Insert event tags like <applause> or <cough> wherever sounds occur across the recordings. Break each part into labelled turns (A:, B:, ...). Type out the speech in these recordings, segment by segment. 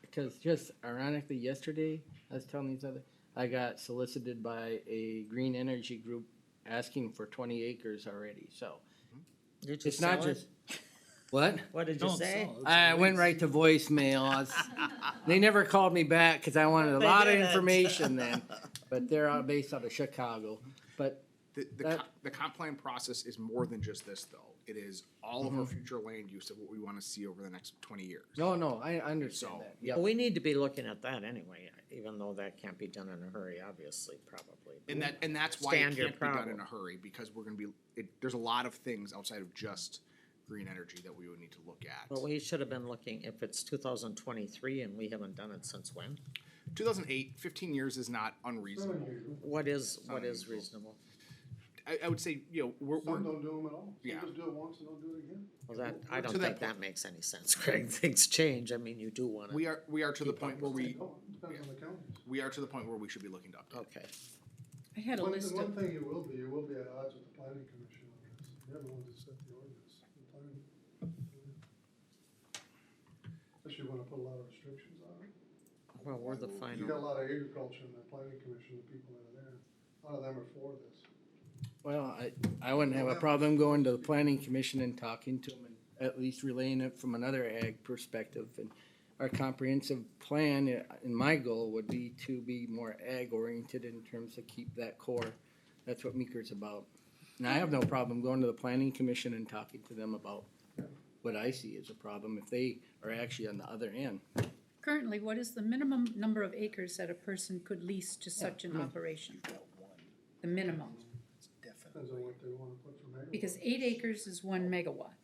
A: because just ironically, yesterday, I was telling these other, I got solicited by a green energy group asking for twenty acres already, so.
B: Did you
A: It's not
B: sell it?
A: just, <laughs> what?
B: What did you say?
A: I went right to voicemail. I
B: <laughs>
A: was, they never called me back because I wanted a
B: They
A: lot of
B: didn't.
A: information
B: <laughs>
A: then. But they're out based out of Chicago. But
C: The, the,
A: That-
C: comp, the comp plan process is more than just this, though. It is all of our future land use of what we want to see over the next 20 years.
A: no, no, I I understand
C: So-
A: that. Yep.
B: We need to be looking at that anyway, even though that can't be done in a hurry, obviously, probably.
C: And that and that's why
B: Stand
C: it
B: your
C: can't be done in
B: problem.
C: a hurry because we're going to be. It, there's a lot of things outside of just green energy that we would need to look at.
B: But we should have been looking, if it's two thousand twenty-three and we haven't done it since when,
C: 2008, 15 years is not unreasonable.
B: what is, what is
C: Unusual.
B: reasonable?
C: I, I would say, you know, we're, we're
D: Some don't do them at all. Some
C: Yeah.
D: just do it once and don't do it again.
B: Well, that, I don't
C: To
B: think
C: that
B: that makes any sense, <laughs> Greg, things change, I mean, you do wanna,
C: we are we are to the point where we
D: Oh, it Depends on the counties.
C: we are to the point where we should be looking to update.
B: okay.
E: I had a
D: One,
E: list
D: one
E: of,
D: thing you will be, you will be at odds with the planning commission on this. They're the ones that set the ordinance. The planning- Unless you wanna put a lot of restrictions on it.
B: Well, we're the
D: You got a
B: final,
D: lot of agriculture in the planning commission, the people that are there. A lot of them are for this.
A: Well, I, I wouldn't have a problem going to the planning commission and talking to them and at least relaying it from another ag perspective. And our comprehensive plan, i- and my goal would be to be more ag oriented in terms of keep that core. That's what Meeker's about. And I have no problem going to the planning commission and talking to them about what I see as a problem if they are actually on the other end.
E: currently, what is the minimum number of acres that a person could lease to such an operation? The minimum,
D: Depends on what they wanna put for megawatts.
E: because eight acres is one megawatt.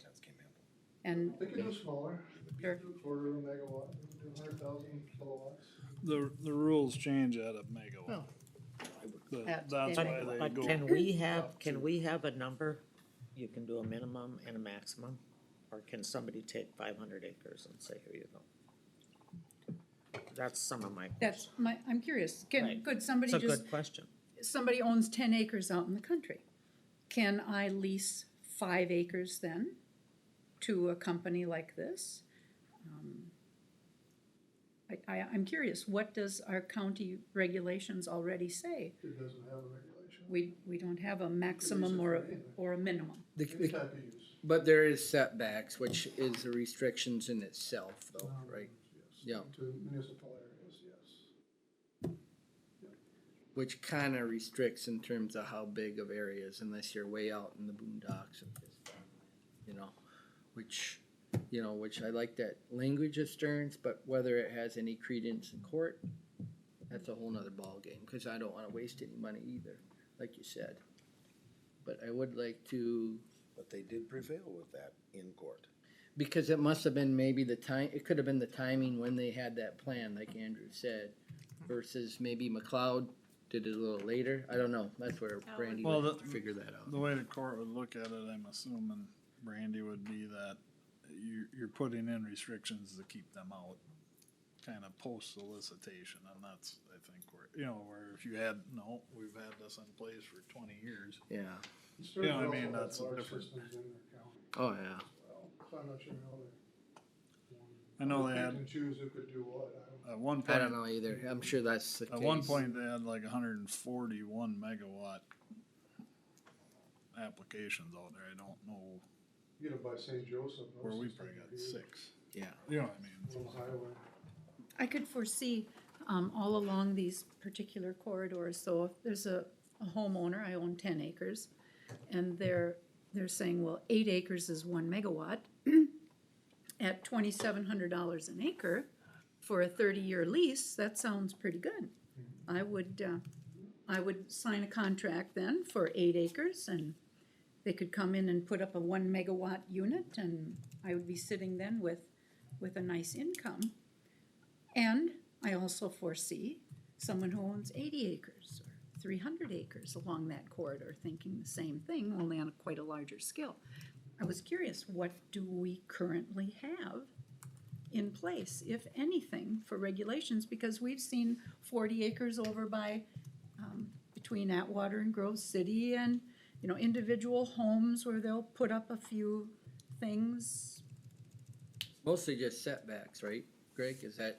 E: And
D: They could do smaller.
E: Sure.
D: Do a Quarter of a megawatt, do a hundred thousand kilowatts.
F: The, the rules change out of megawatt. The-
E: That's
F: That's
E: big.
F: why they
B: but
F: go.
B: can we have, can we have a number? You can do a minimum and a maximum, or can somebody take five hundred acres and say, here you go? That's some of my.
E: that's my, I'm curious, can,
B: Right.
E: could
B: It's
E: somebody
B: a
E: just,
B: good question.
E: somebody owns ten acres out in the country. Can I lease five acres then to a company like this? Um, I, I, I'm curious, what does our county regulations already say
D: It doesn't have a regulation.
E: We, we don't have a maximum or, a or a minimum.
A: The-
D: Any
A: the-
D: type of use.
A: But there is setbacks, which is the restrictions in itself though, right?
D: Um, Yes.
A: Yeah.
D: To municipal areas, yes.
A: which kind of restricts in terms of how big of areas, unless you're way out in the boondocks of this, you know, which, you know, which I like that language of Stearns, but whether it has any credence in court, that's a whole nother ballgame, because I don't want to waste any money either, like you said. But I would like to,
G: But they did prevail with that in court.
A: because it must have been maybe the time, it could have been the timing when they had that plan, like Andrew said, versus maybe McLeod did it a little later. I don't know. That's where Brandy
F: Well,
A: would have
F: the-
A: to figure that out.
F: The way the court would look at it, I'm assuming, Brandy, would be that you, you're putting in restrictions to keep them out. Kind of post solicitation, and that's, I think, where, you know, where if you had, no, we've had this in place for twenty years.
A: Yeah.
D: Sturgis
F: Yeah, I
D: also
F: mean,
D: has
F: that's a
D: large
F: different-
D: systems in their county
A: Oh, yeah.
D: as well, so I'm not sure how they-
F: I know they
D: Pick
F: had,
D: and Choose who could do what, I don't.
F: at one
A: I
F: point,
A: don't know either. I'm sure that's the
F: at
A: case.
F: one point, they had like hundred and forty-one megawatt applications out there, I don't know
D: You know, by St. Joseph. those
F: where we
D: systems
F: probably
D: are
F: got
D: huge.
F: six.
A: Yeah.
F: You know what I mean?
D: Little highway.
E: I could foresee, um, all along these particular corridors, so if there's a, a homeowner, I own ten acres, and they're, they're saying, well, eight acres is one megawatt <clears throat> at twenty-seven hundred dollars an acre for a thirty-year lease, that sounds pretty good. I would, uh, I would sign a contract then for eight acres and they could come in and put up a one megawatt unit and I would be sitting then with, with a nice income. And I also foresee someone who owns eighty acres or three hundred acres along that corridor thinking the same thing, only on a quite a larger scale. I was curious, what do we currently have in place, if anything, for regulations? Because we've seen forty acres over by, um, between Atwater and Grove City and, you know, individual homes where they'll put up a few things,
A: Mostly just setbacks, right, Greg? Is that